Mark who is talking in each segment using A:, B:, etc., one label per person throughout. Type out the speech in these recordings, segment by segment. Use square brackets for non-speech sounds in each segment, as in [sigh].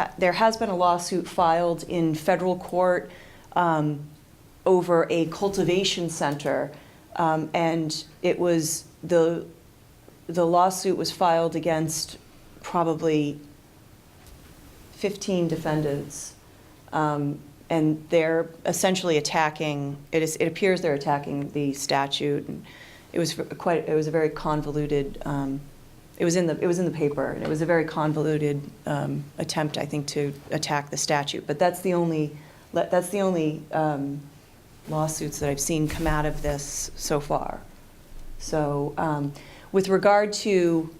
A: Uh, There has been a lawsuit filed in federal court um, over a cultivation center, um, and it was, the, the lawsuit was filed against probably 15 defendants. Um, And they're essentially attacking, it is, it appears they're attacking the statute. and It was quite, it was a very convoluted, um, it was in the, it was in the paper, and it was a very convoluted um, attempt, I think, to attack the statute. But that's the only, that- that's the only um, lawsuits that I've seen come out of this so far. So um, with regard to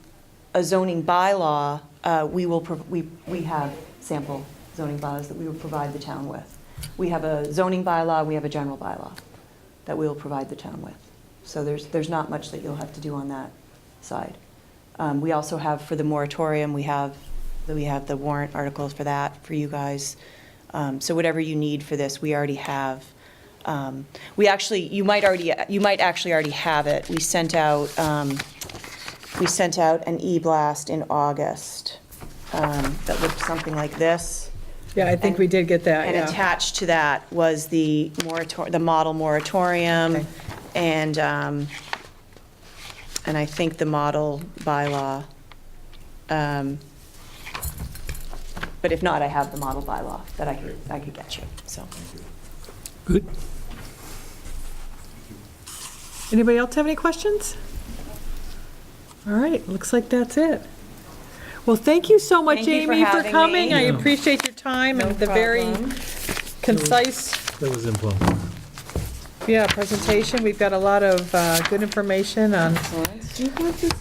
A: a zoning bylaw, uh, we will, prov- we we have sample zoning bylaws that we will provide the town with. We have a zoning bylaw, we have a general bylaw that we will provide the town with. So there's, there's not much that you'll have to do on that side. Um, We also have, for the moratorium, we have, we have the warrant articles for that, for you guys. Um, So whatever you need for this, we already have. Um, We actually, you might already, you might actually already have it. We sent out, um, we sent out an e-blast in August um, that looked something like this.
B: Yeah, I think we did get that,
A: And
B: Uh, yeah.
A: attached to that was the morator, the model moratorium
B: Okay.
A: and, um, and I think the model bylaw. Um, But if not, I have the model bylaw that I could, I could get you, so.
C: Good.
B: Anybody else have any questions? All right, looks like that's it. Well, thank you so much,
A: Thank you for
B: Amy, for
A: having
B: coming.
A: me.
B: I appreciate your time and the very concise,
C: That was impromptu.
B: yeah, presentation. We've got a lot of uh, good information on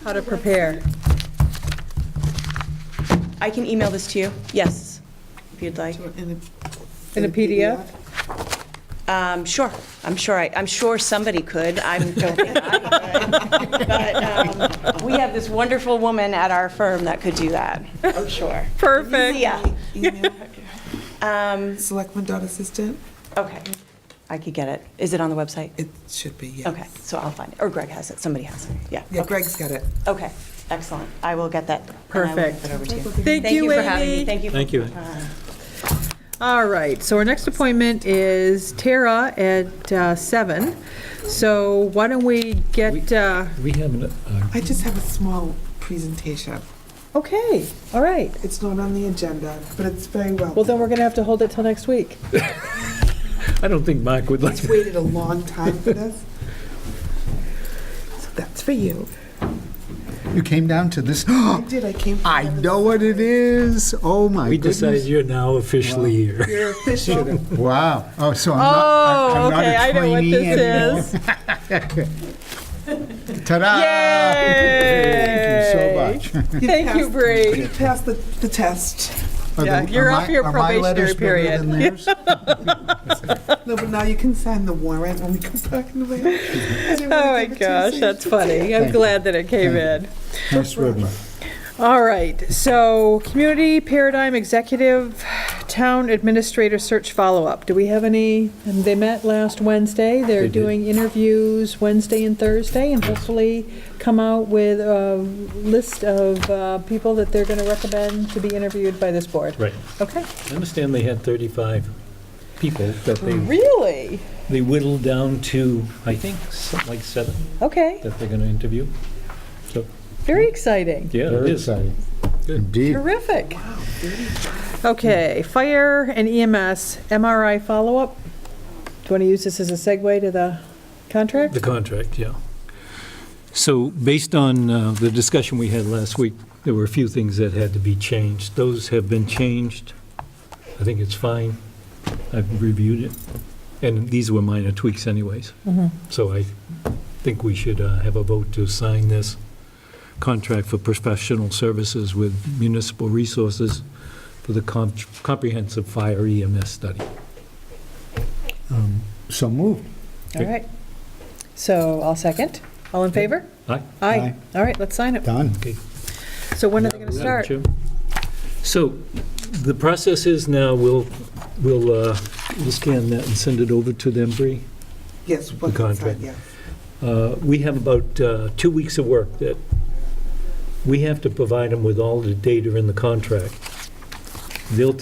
B: how to prepare.
A: I can email this to you, yes, if you'd like.
B: In a PDF?
A: Um, Sure, I'm sure, I- I'm sure somebody could, I'm joking.
B: [laughs]
A: But um, we have this wonderful woman at our firm that could do that, I'm sure.
B: Perfect.
A: Yeah.
B: [laughs]
A: Um,
D: Selectman.assistant?
A: Okay, I could get it. Is it on the website?
D: It should be, yes.
A: Okay, so I'll find it, or Greg has it, somebody has it, yeah.
D: Yeah, Greg's got it.
A: Okay, excellent, I will get that. and I will get
B: Perfect.
A: that over to you.
B: Thank you,
A: for having me,
B: Amy.
A: thank you. for-
C: Thank you.
B: All right, so our next appointment is Tara at uh, seven. So why don't we get, uh,
C: We have an, uh,
D: I just have a small presentation.
B: okay, all right.
D: It's not on the agenda, but it's very well.
B: Well, then we're going to have to hold it till next week.
C: I don't think Mark would like
D: It's waited a long time for this. So that's for you.
E: You came down to this. [gasps]
D: I did, I came.
E: I know what it is. Oh my
C: We decide
E: goodness.
C: you're now officially here.
D: You're official.
E: Wow. Oh, so I'm not,
B: Oh,
E: I'm, I'm
B: okay,
E: not
B: I
E: a
B: know what
E: trainee
B: this [laughs] is.
E: is. Ta-da! Thank you so
B: [laughs]
E: much. [laughs]
B: Thank you,
D: You
B: Bree.
D: passed the, the test.
E: Are
B: Yeah,
E: the-
B: you're
E: are
B: off
E: my-
B: your
E: are my letters
B: probationary
E: better than theirs?
D: No, but now you can sign the warrant when we come back in the way. Oh,
B: Oh, my gosh, that's funny. I'm
E: Thank
B: glad that it came in. [laughs]
E: Nice ribbon.
B: All right, so Community Paradigm Executive Town Administrator Search Follow-Up. Do we have any, and they met last Wednesday. They're
C: They did.
B: doing interviews Wednesday and Thursday, and hopefully come out with a list of uh, people that they're going to recommend to be interviewed by this board.
C: Right.
B: Okay.
C: I understand they had 35 people that they,
B: Really?
C: they whittled down to, I think, something like seven
B: Okay,
C: that they're going to interview. So,
B: very exciting.
C: yeah, it
E: Very
C: is.
E: exciting. Indeed.
B: Terrific. Okay, fire and E EMS MRI follow-up. Do you want to use this as a segue to the contract?
C: The contract, yeah. So based on uh, the discussion we had last week, there were a few things that had to be changed. Those have been changed. I think it's fine. I've reviewed it. And these were minor tweaks anyways.
B: Mhm.
C: So I think we should uh, have a vote to sign this contract for professional services with municipal resources for the com- comprehensive fire EMS study.
E: Um, So moved.
B: All right. So I'll second. All in favor?
C: Aye?
B: Aye. All right, let's sign it.
E: Done.
B: So when are they going to
C: Madam
B: start?
C: Chair. So the process is now, we'll, we'll, uh, we'll scan that and send it over to them, Bree.
D: Yes, what's inside,
C: contract.
D: yeah.
C: Uh, We have about uh, two weeks of work that we have to provide them with all the data in the contract. they'll